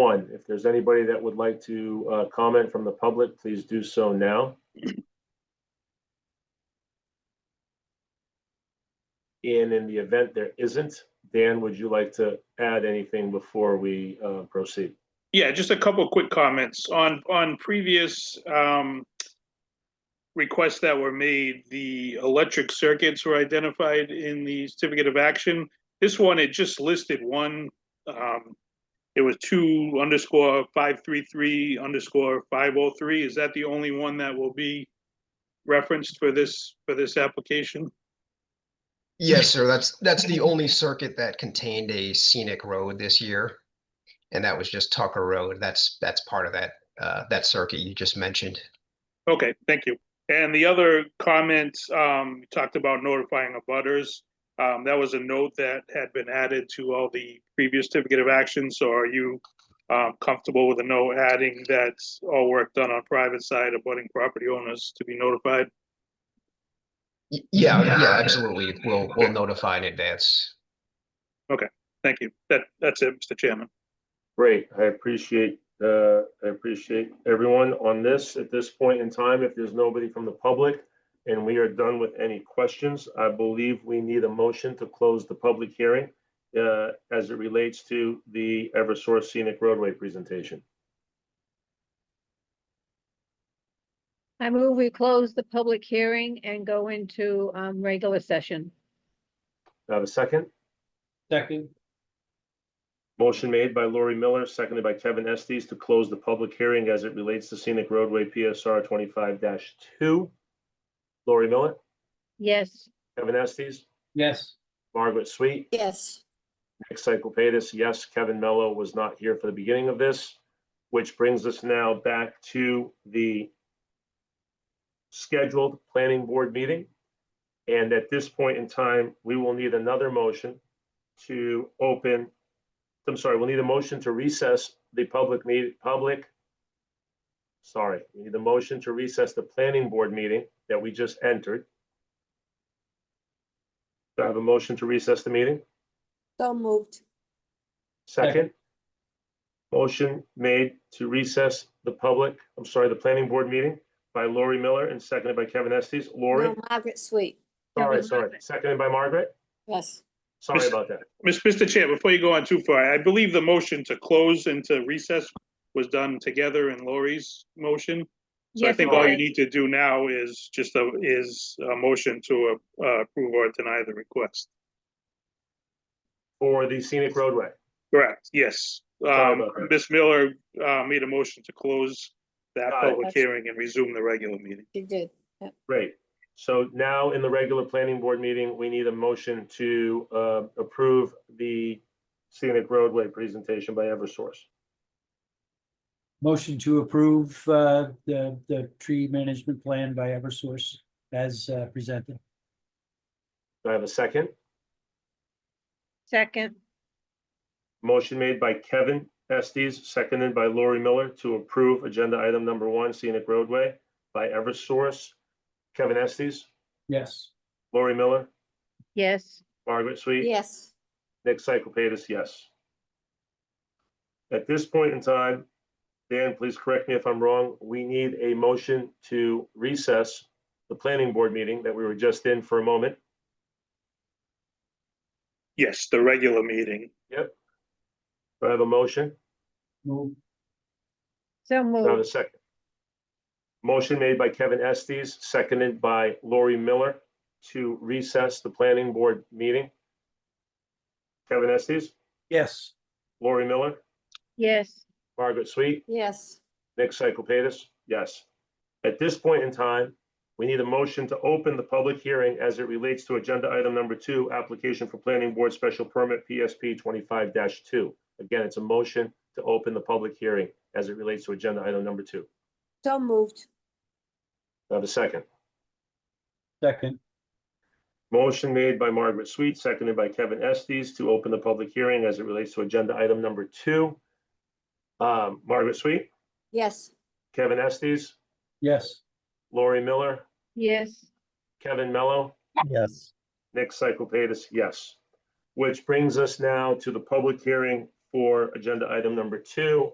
one. If there's anybody that would like to uh, comment from the public, please do so now. And in the event there isn't, Dan, would you like to add anything before we uh, proceed? Yeah, just a couple of quick comments. On, on previous um, requests that were made, the electric circuits were identified in the certificate of action. This one, it just listed one. um, It was two underscore five three three underscore five oh three. Is that the only one that will be referenced for this, for this application? Yes, sir. That's, that's the only circuit that contained a scenic road this year. And that was just Tucker Road. That's, that's part of that, uh, that circuit you just mentioned. Okay, thank you. And the other comment, um, you talked about notifying of butters. Um, that was a note that had been added to all the previous certificate of action, so are you um, comfortable with a note adding that all work done on private side abutting property owners to be notified? Y- Yeah, yeah, absolutely. We'll, we'll notify in advance. Thank you. That, that's it, Mr. Chairman. Great, I appreciate, uh, I appreciate everyone on this. At this point in time, if there's nobody from the public and we are done with any questions, I believe we need a motion to close the public hearing uh, as it relates to the Eversource Scenic Roadway presentation. I move we close the public hearing and go into um regular session. Do I have a second? Second, Motion made by Lori Miller, seconded by Kevin Estes to close the public hearing as it relates to Scenic Roadway PSR twenty-five two. Lori Miller, Yes, Kevin Estes, yes, Margaret Sweet, Yes, Nick Cyclepatis, yes, Kevin Mello was not here for the beginning of this, which brings us now back to the scheduled planning board meeting. And at this point in time, we will need another motion to open, I'm sorry, we'll need a motion to recess the public meet, public. Sorry, we need a motion to recess the planning board meeting that we just entered. Do I have a motion to recess the meeting? so moved. Second. Motion made to recess the public, I'm sorry, the planning board meeting by Lori Miller and seconded by Kevin Estes. Lori, No, Margaret Sweet, sorry, sorry, seconded by Margaret. yes. Sorry about that. Mis- Mr. Chair, before you go on too far, I believe the motion to close and to recess was done together in Lori's motion. So I Yes, think it all you was. need to do now is just a, is a motion to uh, approve or deny the request. For the scenic roadway. Correct, yes. Sorry Um, about that. Ms. Miller, uh, made a motion to close that Got it. public hearing and resume the regular meeting. You did. Great. So now in the regular planning board meeting, we need a motion to uh, approve the scenic roadway presentation by Eversource. motion to approve, uh, the, the tree management plan by Eversource as uh, presented. Do I have a second? second, Motion made by Kevin Estes, seconded by Lori Miller to approve agenda item number one, scenic roadway by Eversource. Kevin Estes, Yes, Lori Miller, yes, Margaret Sweet, Yes, Nick Cyclepatis, yes. At this point in time, Dan, please correct me if I'm wrong, we need a motion to recess the planning board meeting that we were just in for a moment. Yes, the regular meeting. Do I have a motion? move, so Do I have a moved, second? Motion made by Kevin Estes, seconded by Lori Miller to recess the planning board meeting. Kevin Estes, yes, Lori Miller, yes, Margaret Sweet, yes, Nick Cyclepatis, yes. At this point in time, we need a motion to open the public hearing as it relates to agenda item number two, application for planning board special permit PSP twenty-five two. Again, it's a motion to open the public hearing as it relates to agenda item number two. so moved. Do I have a second? second, Motion made by Margaret Sweet, seconded by Kevin Estes to open the public hearing as it relates to agenda item number two. Um, Margaret Sweet, Yes, Kevin Estes, yes. Lori Miller, yes, Kevin Mello, Yes. Nick Cyclepatis, yes. Which brings us now to the public hearing for agenda item number two,